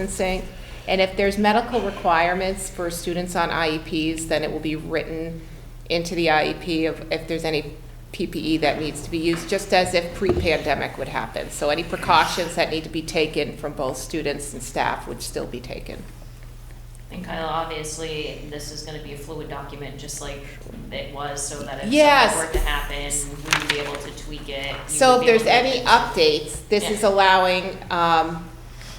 distancing. And if there's medical requirements for students on IEPs, then it will be written into the IEP of if there's any PPE that needs to be used, just as if pre-pandemic would happen. So any precautions that need to be taken from both students and staff would still be taken. And Kyle, obviously, this is gonna be a fluid document, just like it was, so that if Yes. something were to happen, we'd be able to tweak it. you So would if be able there's to- any updates, this Yeah. is allowing um,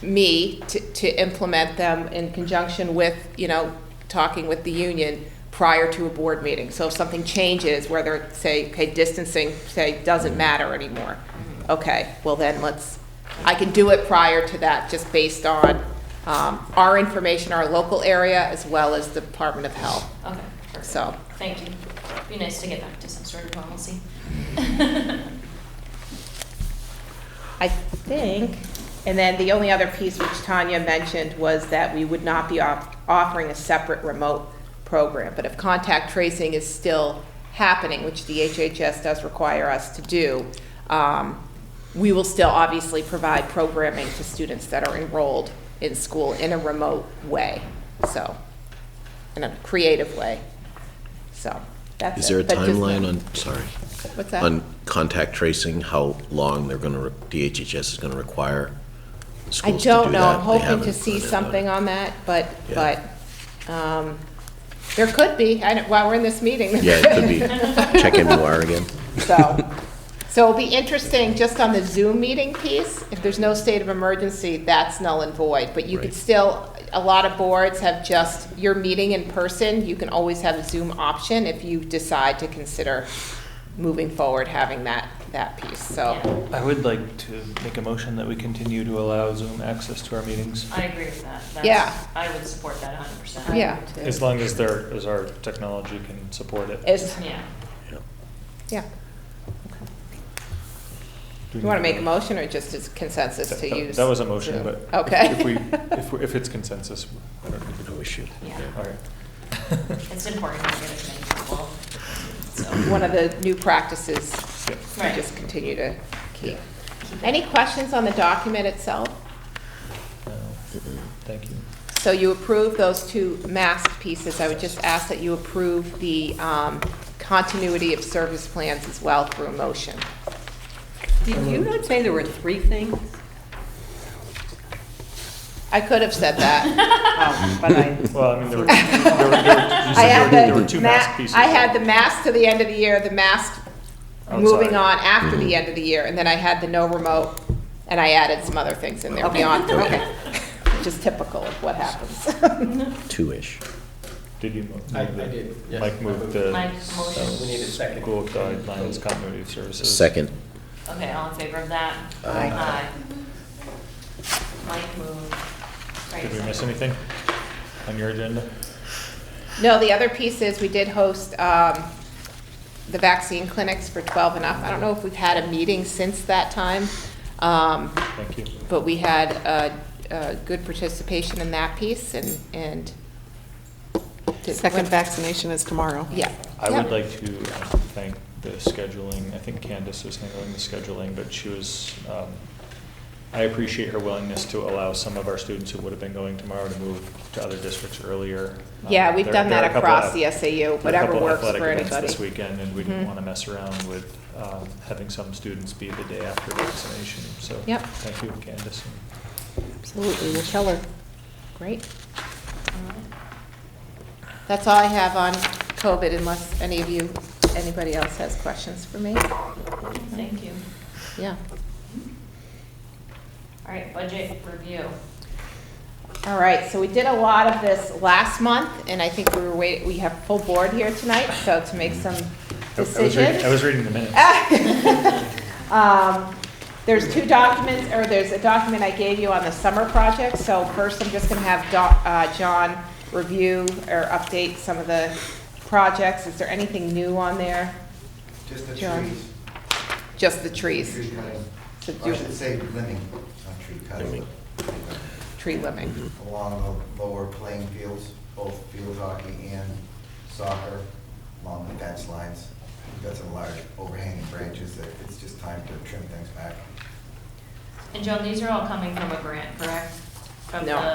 me to to implement them in conjunction with, you know, talking with the union prior to a board meeting. So if something changes, whether, say, okay, distancing, say, doesn't matter anymore, okay, well then let's, I can do it prior to that, just based on um, our information, our local area, as well as the Department of Health, Okay, perfect. so. Thank you. Be nice to get back to some sort of normalcy. I think, and then the only other piece which Tanya mentioned was that we would not be off- offering a separate remote program. But if contact tracing is still happening, which the HHS does require us to do, um, we will still obviously provide programming to students that are enrolled in school in a remote way, so, in a creative way, so, that's it. Is there a But just- timeline on, sorry, What's that? on contact tracing, how long they're going to, DHHS is going to require I schools to do that? don't know, I'm They hoping to haven't see put it out. something on that, but, Yeah. but, um, there could be, I don't, while we're in this meeting. Yeah, it could be, check MUR again. So, so it'll be interesting, just on the Zoom meeting piece, if there's no state of emergency, that's null and void. But you could Right. still, a lot of boards have just, your meeting in person, you can always have a Zoom option if you decide to consider moving forward, having that, that piece, so. I would like to make a motion that we continue to allow Zoom access to our meetings, I agree with that. That's- Yeah. I would support that hundred percent. Yeah. as long as there, as our technology can support it. It's, Yeah. Yeah. yeah. Do You want to need make a motion or just as consensus That- to that- use? That was a motion, Zoom? but. if- Okay. If we, if, we- if it's consensus, I don't think No issue. Yeah. All right. It's important to get as many people, so. One of the new practices Yep. we Right. just continue to keep. keep it- Any questions on the document itself? No. Thank you. So you approve those two mask pieces. I would just ask that you approve the um, continuity of service plans as well through a motion. Did you not say there were three things? I could have said that. Oh, but I, Well, I mean, there were, there were, there were- you I had said there were- there the were two ma- mask pieces. I had the mask to the end of the year, the mask moving on Outside. after Mm-hmm. the end of the year, and then I had the no remote, and I added some other things in there Okay. beyond three. Okay. Which is typical of what happens. Two-ish. Did you? mo- I, I move the- did, yes. Mike moved the. uh, Mike We motion. need a second. School guidelines, continuity of services. Second, uh, Okay, all in favor of that? Aye. Mike moved. Right, Did we second. miss anything on your agenda? No, the other piece is, we did host um, the vaccine clinics for 12 and up. I don't know if we've had a meeting since that time, um, Thank you. but we had uh, uh, good participation in that piece, and, and. Second vaccination is tomorrow. Yeah. I would Yeah. like to um, thank the scheduling, I think Candace was handling the scheduling, but she was, um, I appreciate her willingness to allow some of our students who would have been going tomorrow to move to other districts earlier. Um, Yeah, we've there- done there are that a couple across of- the SAU, there are a whatever couple works athletic for events anybody. This weekend, and we didn't Mhm. want to mess around with um, having some students be the day after vaccination, so. Yep. Thank you, Candace. and Absolutely, we'll tell her. Great. That's all I have on COVID unless any of you, anybody else has questions for me? All right, Thank you. Yeah. All right, budget review. All right, so we did a lot of this last month, and I think we were wait, we have full board here tonight, so to make some I- I was reading- I decisions. was reading the minutes. Um, There's two documents, or there's a document I gave you on the summer project, so first I'm just gonna have Doc- uh, John review or update some of the projects. Is there anything new on there? Just the John. trees. Just the trees, Tree cutting. So Or I you- should say limbing, not tree cutting. Limbing. tree limbing. Along the lower playing fields, both field hockey and soccer, along the fence lines. We've got some large overhanging branches that it's just time to trim things back. And Joan, these are all coming from a grant, correct? from No. the